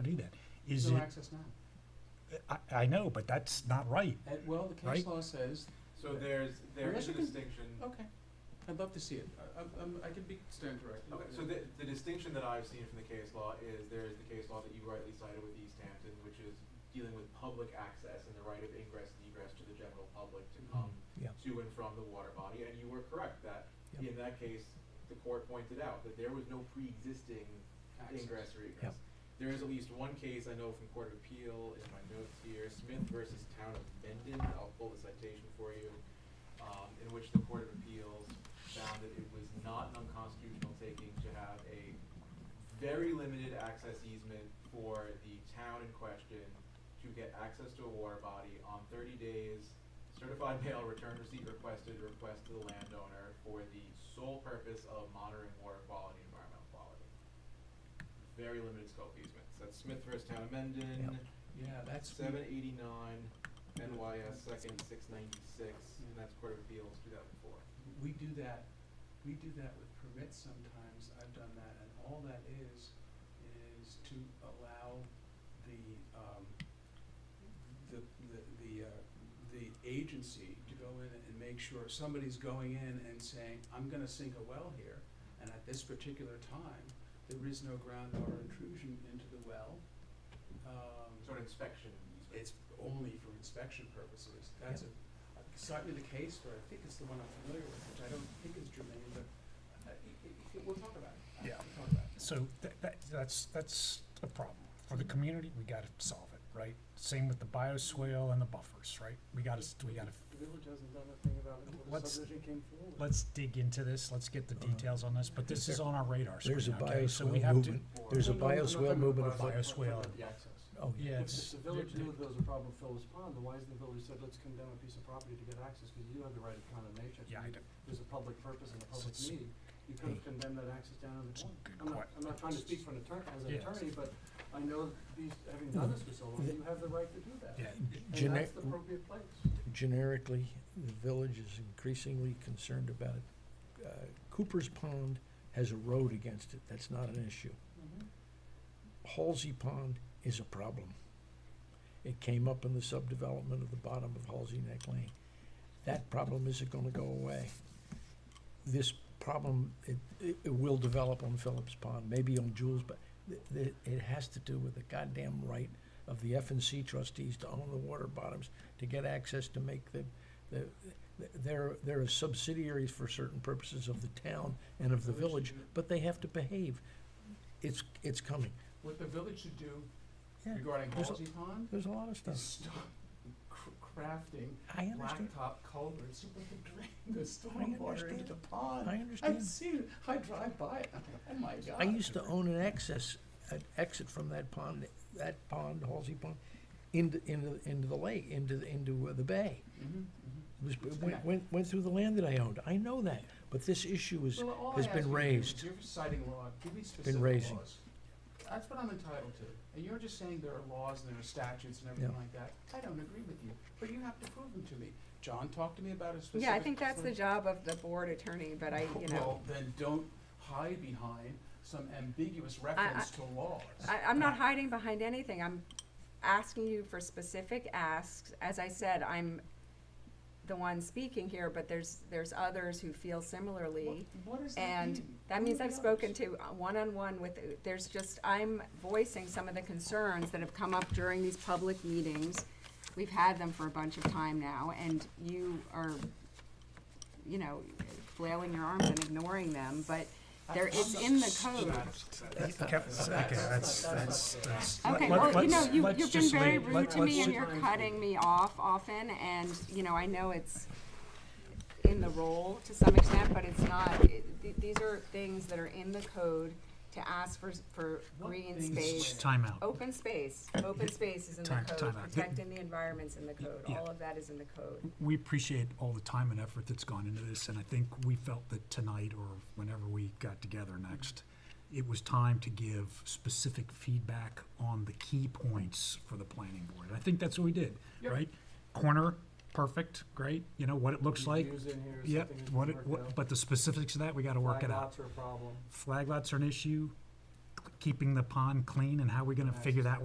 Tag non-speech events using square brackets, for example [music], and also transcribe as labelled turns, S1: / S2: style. S1: to do that. Is
S2: No
S1: it,
S2: access now.
S1: I, I know, but that's not right.
S2: Uh, Well, the
S1: Right?
S2: case law says,
S3: So there's, there
S2: Unless
S3: is a
S2: you can-
S3: distinction,
S2: okay, I'd love to see it. I, I'm- I'm, I can be stand directed.
S3: okay, so the, the distinction that I've seen from the case law is there is the case law that you rightly cited with East Hampton, which is dealing with public access and the right of ingress and egress to the general public to
S4: Um,
S3: come
S1: Yeah.
S3: to and from the water body, and you were correct that
S1: Yeah.
S3: in that case, the court pointed out that there was no pre-existing
S2: Access.
S3: ingress or egress. There is at least one case I know from Court of Appeal in my notes here, Smith versus Town of Mendon, I'll pull the citation for you, um, in which the Court of Appeals found that it was not an unconstitutional taking to have a very limited access easement for the town in question to get access to a water body on thirty days. Certified [laughs] mail return receipt requested, request to the landowner for the sole purpose of monitoring water quality, environmental quality. Very limited scope easements. That's Smith versus Town of Mendon,
S2: Yeah, that's.
S3: seven eighty-nine, NYS second, six ninety-six, and that's Court of Appeals, two thousand four.
S2: We do that, we do that with permits sometimes, I've done that, and all that is, is to allow the, um, the, the, the, uh, the agency to go in and make sure somebody's going in and saying, I'm gonna sink a well here, and at this particular time, there is no groundwater intrusion into the well. Um,
S3: So an inspection easement.
S2: it's only for inspection purposes. That's a, slightly the case where I think it's the one I'm familiar with, which I don't think is germane, but uh, i- i- i- we'll talk about it.
S1: Yeah.
S2: We'll talk about it.
S1: So that, that, that's, that's a problem. For the community, we gotta solve it, right? Same with the bioswale and the buffers, right? We gotta, s- we gotta,
S5: The village hasn't done a thing about it until the
S1: Let's-
S5: subdivision came forward.
S1: let's dig into this, let's get the
S4: Uh-huh.
S1: details on this, but this is on our radar screen,
S6: There's a
S1: okay? So we
S6: bioswale
S1: have to-
S6: movement. There's a
S5: No, no, no, no, no,
S6: bioswale
S5: no,
S6: movement
S5: no,
S6: of
S5: no, no, no,
S1: bioswale.
S5: no, no, no.
S3: The access.
S6: Oh, yeah.
S1: Yeah,
S5: If
S1: it's,
S5: the village knew there was a problem with Phillips Pond, then why hasn't the village said, let's condemn a piece of property to get access, because you do have the right of condemnation.
S1: yeah, I d-
S5: There's a public purpose and a public
S1: It's-
S5: need, you could have condemned that access down in the
S1: it's a
S5: corner.
S1: good
S5: I'm not,
S1: que-
S5: I'm not trying to speak for an attorney, as an
S1: Yeah.
S5: attorney, but I know these, having done this for so long,
S6: The-
S5: you have the right to do that.
S1: yeah,
S4: [laughs]
S5: And
S6: Gene-
S5: that's the appropriate place.
S6: generically, the village is increasingly concerned about it. Uh, Cooper's Pond has a road against it, that's not an issue. Halsey Pond is a problem. It came up in the subdevelopment of the bottom of Halsey Neck Lane. That problem isn't gonna go away. This problem, it, it, it will develop on Phillips Pond, maybe on Jules, but it, it has to do with the goddamn right of the F and C trustees to own the water bottoms, to get access to make the, the, they're, they're subsidiaries for certain purposes of the town and of the village, but they have to behave. It's, it's coming.
S2: What the village should do
S6: Yeah,
S2: regarding
S6: there's a-
S2: Halsey Pond
S6: There's a lot of
S2: is
S6: stuff.
S2: stop cr- crafting
S6: I understand.
S2: blacktop culverts so we can drain the
S6: understand.
S2: stormwater into the
S6: I
S2: pond. I've
S6: understand.
S2: seen it, I drive by it, oh my god.
S6: I used to own an access, an exit from that pond, that pond, Halsey Pond, into, into, into the lake, into, the- into uh, the bay.
S2: Mhm,
S6: It was, it went, went, went through the land that I owned. I know that, but this issue is,
S2: mhm. Well, all I
S6: has
S2: ask
S6: been
S2: you to do
S6: raised.
S2: is You're citing law, give me specific
S6: raising.
S2: laws. That's what I'm entitled to. And you're just saying there are laws and there are statutes and everything
S6: Yeah.
S2: like that. I don't agree with you, but you have to prove them to me. John, talk to me about a specific.
S4: Yeah, I think that's the
S2: sort
S4: job of the board attorney, but I,
S2: of-
S4: you know,
S2: Well, then don't hide behind some ambiguous reference to laws.
S4: I, I'm not hiding behind anything. I'm asking you for specific asks. As I said, I'm the one speaking here, but there's, there's others who feel similarly.
S2: What, what does that
S4: And
S2: mean?
S4: that means
S2: Who
S4: I've
S2: knows?
S4: spoken to uh, one-on-one with, there's just, I'm voicing some of the concerns that have come up during these public meetings. We've had them for a bunch of time now, and you are, you know, flailing your arms and ignoring them, but there, it's in the code.
S1: Kev- okay, that's, that's, that's.
S4: Okay,
S1: let-
S4: well, you know,
S1: let's-
S4: you,
S1: let's
S4: you've been
S1: just
S4: very
S1: leave-
S4: rude
S1: let-
S4: to
S1: let's
S4: me and
S1: ju-
S4: you're cutting me off often, and, you know, I know it's in the role to some extent, but it's not, it- th- these are things that are in the code to ask for, s- for
S2: What
S4: green
S2: things
S4: space.
S2: where?
S1: Time out.
S4: Open space, open space is in
S1: Time-
S4: the
S1: time
S4: code,
S1: out.
S4: protecting the environment's in the code,
S1: Yeah.
S4: all of that is in the code.
S1: We appreciate all the time and effort that's gone into this, and I think we felt that tonight or whenever we got together next, it was time to give specific feedback on the key points for the planning board. I think that's what we did,
S2: Yep.
S1: right? Corner, perfect, great, you know, what it looks like.
S5: Use in here,
S1: Yep,
S5: something that's
S1: what, it-
S5: worked out.
S1: what, but the specifics of that, we gotta work
S5: Flag
S1: it out.
S5: lots are a problem.
S1: Flag lots are an issue, keeping the pond clean and how are we gonna figure that